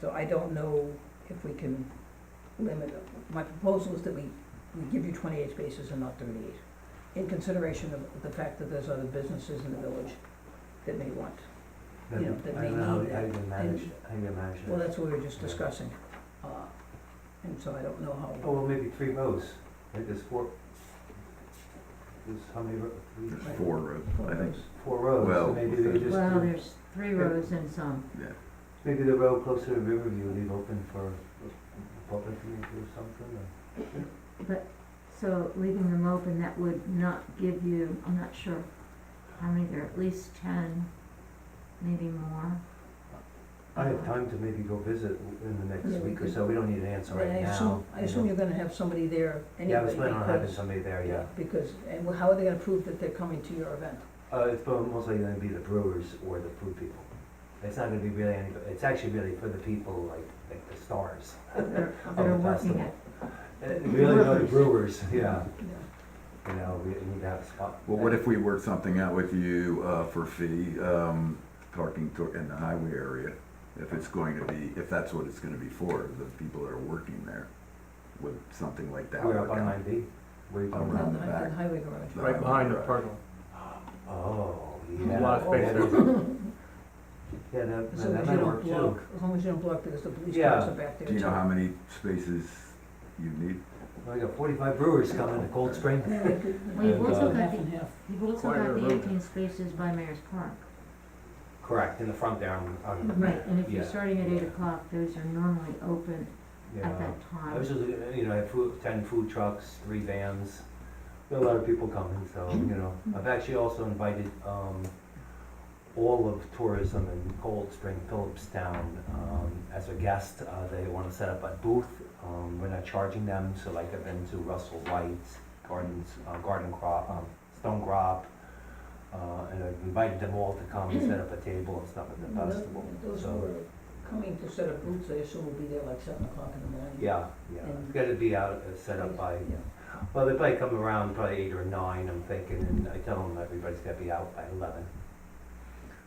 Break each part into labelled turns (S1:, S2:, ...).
S1: So I don't know if we can limit, my proposal is that we, we give you twenty-eight spaces and not thirty-eight, in consideration of the fact that there's other businesses in the village that may want.
S2: Then
S1: You know, that
S2: I
S1: may
S2: don't know how-
S1: need
S2: How
S1: that.
S2: you can manage, how you can manage
S1: Well,
S2: that.
S1: that's what we were just discussing, uh, and so I don't know
S2: Oh,
S1: how,
S2: well, maybe three rows, Maybe there's four, there's how many, ro- three,
S3: Four rows,
S2: Oh,
S3: I think.
S2: four rows, so
S3: Well,
S2: maybe they
S3: within-
S2: just,
S4: Well,
S2: do-
S4: there's three rows and some.
S2: maybe the row closer to Riverview, leave open for the public to do something, or?
S4: So leaving them open, that would not give you, I'm not sure how many, there are at least ten, maybe more.
S2: I have time to maybe go visit in the
S1: Yeah,
S2: next
S1: we
S2: week or
S1: could-
S2: so, we don't need an answer
S1: I
S2: right now.
S1: assume, I
S2: you
S1: assume
S2: know.
S1: you're gonna have somebody there anyway.
S2: Yeah, I was planning on having
S1: because-
S2: somebody there, yeah.
S1: Because, and well, how are they gonna prove that they're coming to your event?
S2: Uh, it's prob- most likely gonna be the brewers or the food people. It's not gonna be really any, it's actually really for the people, like, like the stars.
S4: They're,
S2: of the
S4: they're working
S2: festival.
S4: at,
S2: Uh, Really, no, the
S4: Workers.
S2: brewers, yeah,
S1: Yeah.
S2: you know, we need to have a spot.
S3: Well, what if we work something out with you uh, for fee, um, parking to- in the highway area? If it's going to be, if that's what it's gonna be for, the people that are working there, would something like that
S2: We're up
S3: work
S2: on
S3: out?
S2: nine B, where you come
S3: Around.
S2: from.
S1: Down
S3: the
S1: the hi-
S3: back.
S1: the highway garage.
S3: The
S5: Right
S3: highway
S5: behind the
S3: garage.
S5: parking.
S2: Oh, yeah.
S5: A lot of space
S2: Yeah,
S5: there.
S2: Yeah, that,
S1: As long
S2: that
S1: as you
S2: might work
S1: don't block,
S2: too.
S1: as long as you don't block because the police cars
S2: Yeah.
S1: are back there
S3: Do you
S1: too.
S3: know how many spaces you need?
S2: We got forty-five brewers coming to Cold Spring.
S1: Yeah, we could-
S4: Well, you've
S2: And,
S4: also
S2: uh,
S4: got
S1: Half
S4: the,
S1: and half.
S4: you've also
S5: Quite a
S4: got the
S5: road.
S4: eighteen spaces by Mayor's Park.
S2: Correct, in the front there, on, on,
S4: Right, and if you're
S2: Yeah.
S4: starting at eight o'clock, those are normally open
S2: yeah.
S4: at that
S2: I was
S4: time.
S2: just, looking at, you know, I have food, ten food trucks, three vans, Got a lot of people coming, so, you know, I've actually also invited, um, all of tourism in Cold Spring, Phillipstown, um, as a guest, uh, they wanna set up a booth, um, we're not charging them, so like I've been to Russell White's, Gardens, uh, Garden Crop, um, Stone Crop, uh, and I've invited them all to come and set up a table and stuff at the
S1: Well,
S2: festival,
S1: Those who
S2: so,
S1: are coming to set up booths, I assume will be there like seven o'clock in the morning.
S2: yeah, yeah, it's gotta be out, uh, set up by,
S1: Yeah.
S2: Well, they probably come around probably eight or nine, I'm thinking, and I tell them everybody's gotta be out by eleven.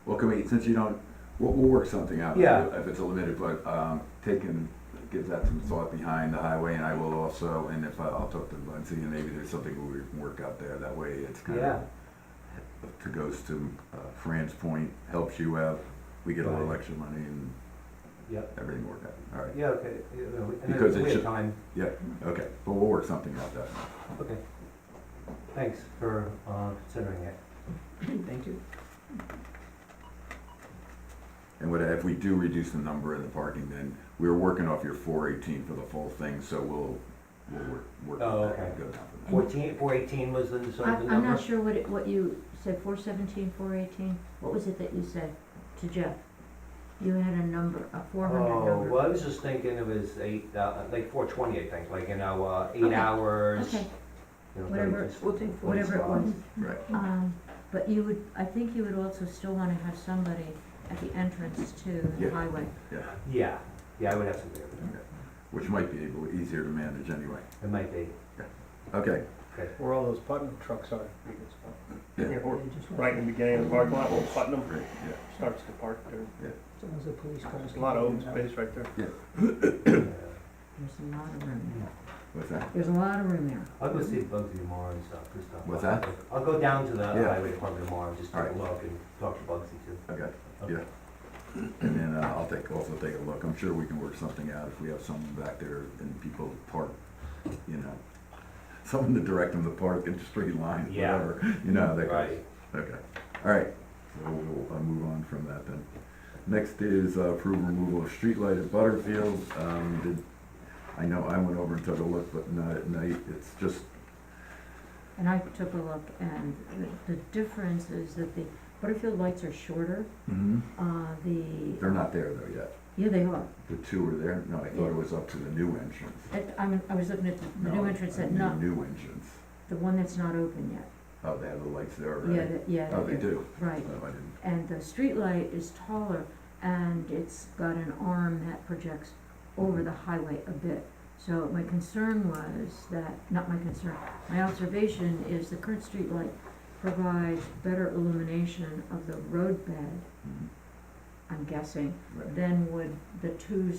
S3: Well, can we, since you don't, we'll, we'll work something out. with
S2: Yeah.
S3: you If it's a limited, but, um, taking, give that some thought behind the highway and I will also, and if, I- I'll talk to Muncie and maybe there's something we can work out there. That way it's kind of to goes to uh, Fran's point, helps you out, we get a little
S2: Right.
S3: extra money and
S2: Yep.
S3: everything worked out, all right,
S2: Yeah, okay, you know, and
S3: Because
S2: then
S3: it
S2: we have
S3: should-
S2: time,
S3: okay, but we'll work something out that.
S2: okay. Thanks for, uh, considering it.
S1: Thank you.
S3: And what, if we do reduce the number in the parking, then we're working off your four eighteen for the full thing, so we'll, we'll work, work
S2: Oh,
S3: with that,
S2: okay.
S3: and go down from there.
S2: Fourteen, four eighteen was the, sort
S4: I,
S2: of the
S4: Mm. I'm
S2: number?
S4: not sure what it, what you said, four seventeen, four eighteen, what was it that you said to Jeff? You had a number, a four hundred
S2: Oh,
S4: number.
S2: well, I was just thinking it was eight, uh, like four twenty, I think, like, you know, uh, eight
S4: Okay.
S2: hours.
S4: Okay.
S2: you know,
S4: Whatever-
S2: thirty- just
S1: we'll take
S2: one
S4: whatever it
S2: spot.
S4: was.
S3: Right,
S4: Um, but you would, I think you would also still wanna have somebody at the entrance to
S3: Yeah.
S4: the highway.
S3: yeah,
S2: Yeah, yeah, I would have something,
S3: which might be able, easier to manage anyway,
S2: it might be,
S3: okay,
S5: Where all those Putnam trucks are. you can spot.
S3: Yeah.
S5: Yeah, or
S1: They just want-
S5: Right in the beginning of the parking lot, where Putnam
S3: great,
S5: starts to park there.
S1: As long as the police cars.
S5: There's a lot of open
S1: can get in and out.
S5: space right there.
S2: yeah.
S4: There's a lot of room there.
S3: yeah, what's that?
S4: There's a lot of room there.
S2: I'll go see Bugsy tomorrow and stuff, and stuff.
S3: What's that?
S2: I'll go down to the
S3: Yeah.
S2: highway department tomorrow and just take a
S3: Alright.
S2: look and talk to Bugsy too.
S3: Okay,
S2: Okay.
S3: yeah. And then uh, I'll take, also take a look, I'm sure we can work something out if we have someone back there and people park, you know, someone to direct them to park in straight lines,
S2: Yeah.
S3: whatever, you know, how that goes.
S2: Right.
S3: Okay, all right, so we'll uh, move on from that then. Next is uh, approve removal of streetlight at Butterfield. Um, did- I know I went over and took a look, but not at night, it's just,
S4: And I took a look and the, the difference is that the Butterfield lights are shorter,
S2: Mm-hmm.
S4: uh, the.
S3: they're not there though yet.
S4: Yeah, they are.
S3: The two are there, no, I thought it was up to the new entrance.
S4: It- I'm, I was looking at the- the new
S3: No,
S4: entrance
S3: I
S4: that
S3: mean
S4: not,
S3: New entrance.
S4: the one that's not open yet.
S3: Oh, they have the lights there
S4: Yeah,
S3: already?
S4: that- yeah.
S3: Oh,
S4: that
S3: they
S4: they're-
S3: do? Oh, I
S4: Right,
S3: didn't.
S4: and the streetlight is taller and it's got an arm that projects over the highway a bit. So my concern was that, not my concern, my observation is the current streetlight provides better illumination of the roadbed,
S3: Mhm.
S4: I'm guessing,
S3: Right.
S4: than would the two